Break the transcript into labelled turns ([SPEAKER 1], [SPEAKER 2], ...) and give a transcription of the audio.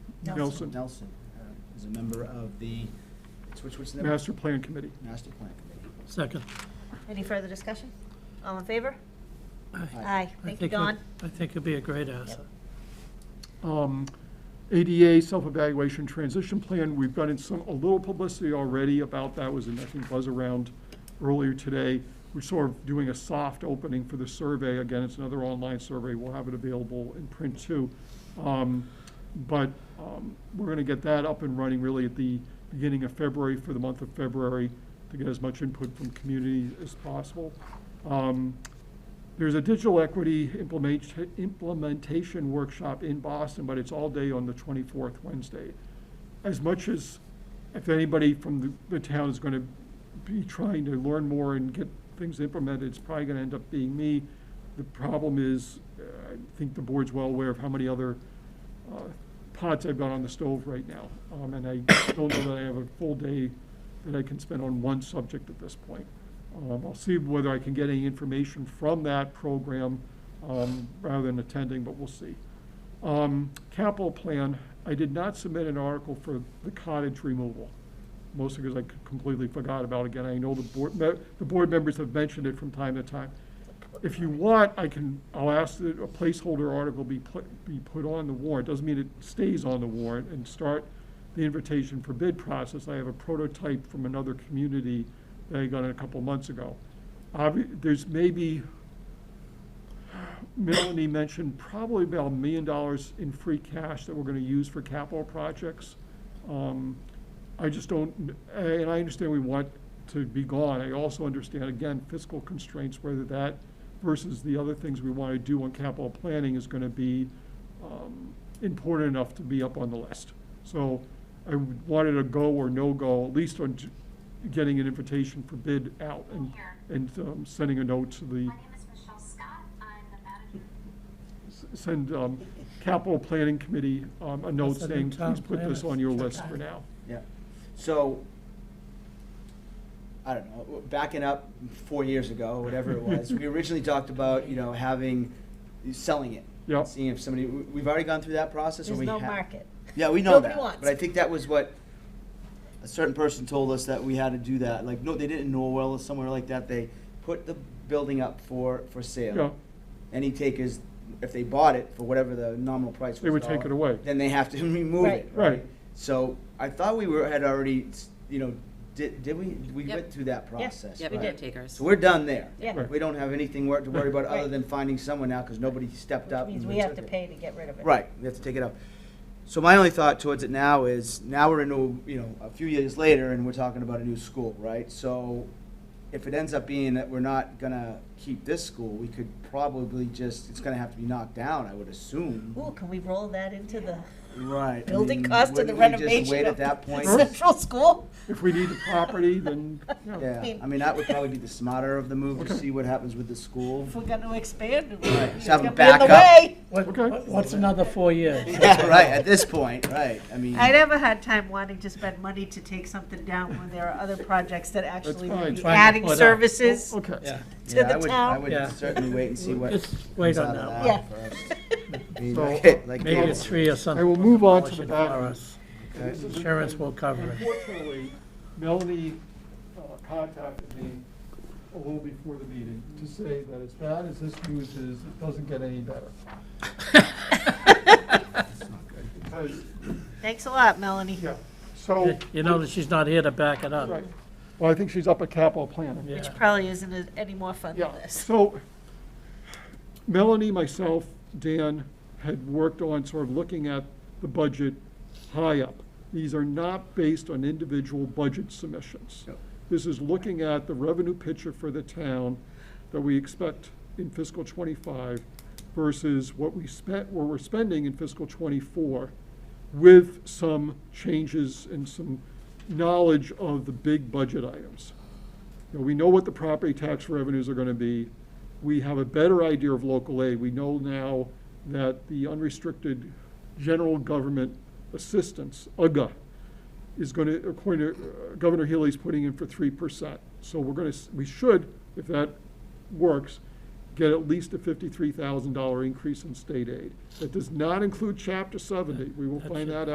[SPEAKER 1] Nelson.
[SPEAKER 2] Nelson uh, is a member of the, it's which, what's the number?
[SPEAKER 1] Master Plan Committee.
[SPEAKER 2] Master Plan Committee.
[SPEAKER 3] Second.
[SPEAKER 4] Any further discussion? All in favor?
[SPEAKER 3] I-
[SPEAKER 4] Aye.
[SPEAKER 3] I
[SPEAKER 4] Thank you,
[SPEAKER 3] think he'll-
[SPEAKER 4] Don.
[SPEAKER 3] I think it'd be a great asset.
[SPEAKER 1] Um, ADA Self-Evaluation Transition Plan, we've gotten some, a little publicity already about that, was, in I think was around earlier today. We're sort of doing a soft opening for the survey, again, it's another online survey, we'll have it available in print too. Um, But um, we're gonna get that up and running really at the beginning of February, for the month of February, to get as much input from community as possible. Um, There's a digital equity implement- implementation workshop in Boston, but it's all day on the 24th, Wednesday. As much as, if anybody from the- the town is going to be trying to learn more and get things implemented, it's probably going to end up being me. The problem is, uh, I think the board's well aware of how many other uh, pots I've got on the stove right now. Um, And I don't know that I have a full day that I can spend on one subject at this point. Um, I'll see whether I can get any information from that program um, rather than attending, but we'll see. Um, Capital plan, I did not submit an article for the cottage removal, mostly because I completely forgot about it. Again, I know the board, me- the board members have mentioned it from time to time. If you want, I can, I'll ask that a placeholder article be put, be put on the warrant. Doesn't mean it stays on the warrant and start the invitation for bid process. I have a prototype from another community that I got a couple months ago. Obvi- There's maybe, Melanie mentioned probably about a million dollars in free cash that we're gonna use for capital projects. Um, I just don't, and I understand we want to be gone. I also understand, again, fiscal constraints, whether that versus the other things we wanna do on capital planning is gonna be, um, important enough to be up on the list. So I wanted a go or no-go, at least on j- getting an invitation for bid out and, and um, sending a note to the
[SPEAKER 5] My name is Michelle Scott. I'm the manager.
[SPEAKER 1] send um, Capital Planning Committee um, a note
[SPEAKER 3] That's a
[SPEAKER 1] saying,
[SPEAKER 3] new town
[SPEAKER 1] please put this
[SPEAKER 3] planner.
[SPEAKER 1] on your list for now.
[SPEAKER 2] Yeah, so, I don't know, backing up four years ago, whatever it was, we originally talked about, you know, having, selling it.
[SPEAKER 1] Yep.
[SPEAKER 2] Seeing if somebody, we- we've already gone through that process, or
[SPEAKER 4] There's
[SPEAKER 2] we
[SPEAKER 4] no
[SPEAKER 2] ha-
[SPEAKER 4] market.
[SPEAKER 2] Yeah, we know that.
[SPEAKER 4] Nobody wants.
[SPEAKER 2] But I think that was what a certain person told us that we had to do that. Like, no, they didn't in Norwell or somewhere like that. They put the building up for, for sale.
[SPEAKER 1] Yeah.
[SPEAKER 2] Any takers, if they bought it for whatever the nominal price was.
[SPEAKER 1] They would take
[SPEAKER 2] dollar,
[SPEAKER 1] it away.
[SPEAKER 2] Then they have to remove it.
[SPEAKER 4] Right.
[SPEAKER 1] Right,
[SPEAKER 2] So I thought we were, had already, you know, did, did we, we
[SPEAKER 6] Yep.
[SPEAKER 2] went through that
[SPEAKER 4] Yep.
[SPEAKER 2] process.
[SPEAKER 4] Yep,
[SPEAKER 6] we
[SPEAKER 2] right?
[SPEAKER 6] did takers.
[SPEAKER 2] So we're done there.
[SPEAKER 4] Yeah.
[SPEAKER 1] Right.
[SPEAKER 2] We don't have anything wor- to worry about other
[SPEAKER 4] Right.
[SPEAKER 2] than finding someone now because nobody stepped
[SPEAKER 4] Which
[SPEAKER 2] up.
[SPEAKER 4] means
[SPEAKER 2] and
[SPEAKER 4] we have
[SPEAKER 2] took
[SPEAKER 4] to
[SPEAKER 2] it.
[SPEAKER 4] pay to get rid of it.
[SPEAKER 2] Right, we have to take it up. So my only thought towards it now is, now we're into, you know, a few years later and we're talking about a new school, right? So if it ends up being that we're not gonna keep this school, we could probably just, it's gonna have to be knocked down, I would assume.
[SPEAKER 4] Ooh, can we roll that into the
[SPEAKER 2] Right. I
[SPEAKER 4] building
[SPEAKER 2] mean,
[SPEAKER 4] cost of the
[SPEAKER 2] wouldn't we
[SPEAKER 4] renovation
[SPEAKER 2] just wait at
[SPEAKER 4] of
[SPEAKER 2] that point?
[SPEAKER 4] Central School?
[SPEAKER 1] if we need the property, then, yeah.
[SPEAKER 2] Yeah, I mean, that would probably be the smarter of the move to
[SPEAKER 1] Okay.
[SPEAKER 2] see what happens with the school.
[SPEAKER 4] If we're gonna expand, it's
[SPEAKER 2] Right, just have
[SPEAKER 4] gonna
[SPEAKER 2] a
[SPEAKER 4] be in the
[SPEAKER 2] backup.
[SPEAKER 4] way.
[SPEAKER 3] What-
[SPEAKER 1] Okay.
[SPEAKER 3] what- What's another four years?
[SPEAKER 2] Yeah, right, at this point, right, I mean.
[SPEAKER 4] I never had time wanting to spend money to take something down when there are other projects that actually
[SPEAKER 1] fine.
[SPEAKER 4] would be
[SPEAKER 3] Trying to
[SPEAKER 4] adding
[SPEAKER 3] put up.
[SPEAKER 4] services.
[SPEAKER 1] Oh, Okay,
[SPEAKER 4] to
[SPEAKER 2] yeah, I
[SPEAKER 4] the
[SPEAKER 2] would- I
[SPEAKER 4] town.
[SPEAKER 3] Yeah.
[SPEAKER 2] would certainly wait and see what.
[SPEAKER 3] Just wait
[SPEAKER 2] comes
[SPEAKER 3] on
[SPEAKER 2] out
[SPEAKER 3] that
[SPEAKER 2] of
[SPEAKER 3] one.
[SPEAKER 4] Yeah.
[SPEAKER 2] first. I mean,
[SPEAKER 1] So,
[SPEAKER 2] like- like
[SPEAKER 3] Maybe
[SPEAKER 2] Dave
[SPEAKER 3] it's three or something.
[SPEAKER 1] I will move on to the
[SPEAKER 3] Demolition
[SPEAKER 1] back.
[SPEAKER 3] for us.
[SPEAKER 2] Okay.
[SPEAKER 3] Insurance will cover it.
[SPEAKER 1] Unfortunately, Melanie uh, contacted me a little before the meeting to say that as bad as this news is, it doesn't get any better. Because,
[SPEAKER 4] Thanks a lot, Melanie.
[SPEAKER 1] yeah, so.
[SPEAKER 3] You know that she's not here to back it up.
[SPEAKER 1] Right. Well, I think she's up at capital planning.
[SPEAKER 3] Yeah.
[SPEAKER 4] Which probably isn't as- any more fun than
[SPEAKER 1] Yeah,
[SPEAKER 4] this.
[SPEAKER 1] so Melanie, myself, Dan had worked on sort of looking at the budget high up. These are not based on individual budget submissions.
[SPEAKER 2] Yep.
[SPEAKER 1] This is looking at the revenue picture for the town that we expect in fiscal twenty-five versus what we spent, where we're spending in fiscal twenty-four with some changes and some knowledge of the big budget items. You know, we know what the property tax revenues are gonna be. We have a better idea of local aid. We know now that the unrestricted general government assistance, UGA, is gonna, according to, uh, Governor Healy's putting in for three percent. So we're gonna, s- we should, if that works, get at least a fifty-three thousand dollar increase in state aid. That does not include chapter seventy. We will
[SPEAKER 3] That's
[SPEAKER 1] find
[SPEAKER 3] it.
[SPEAKER 1] that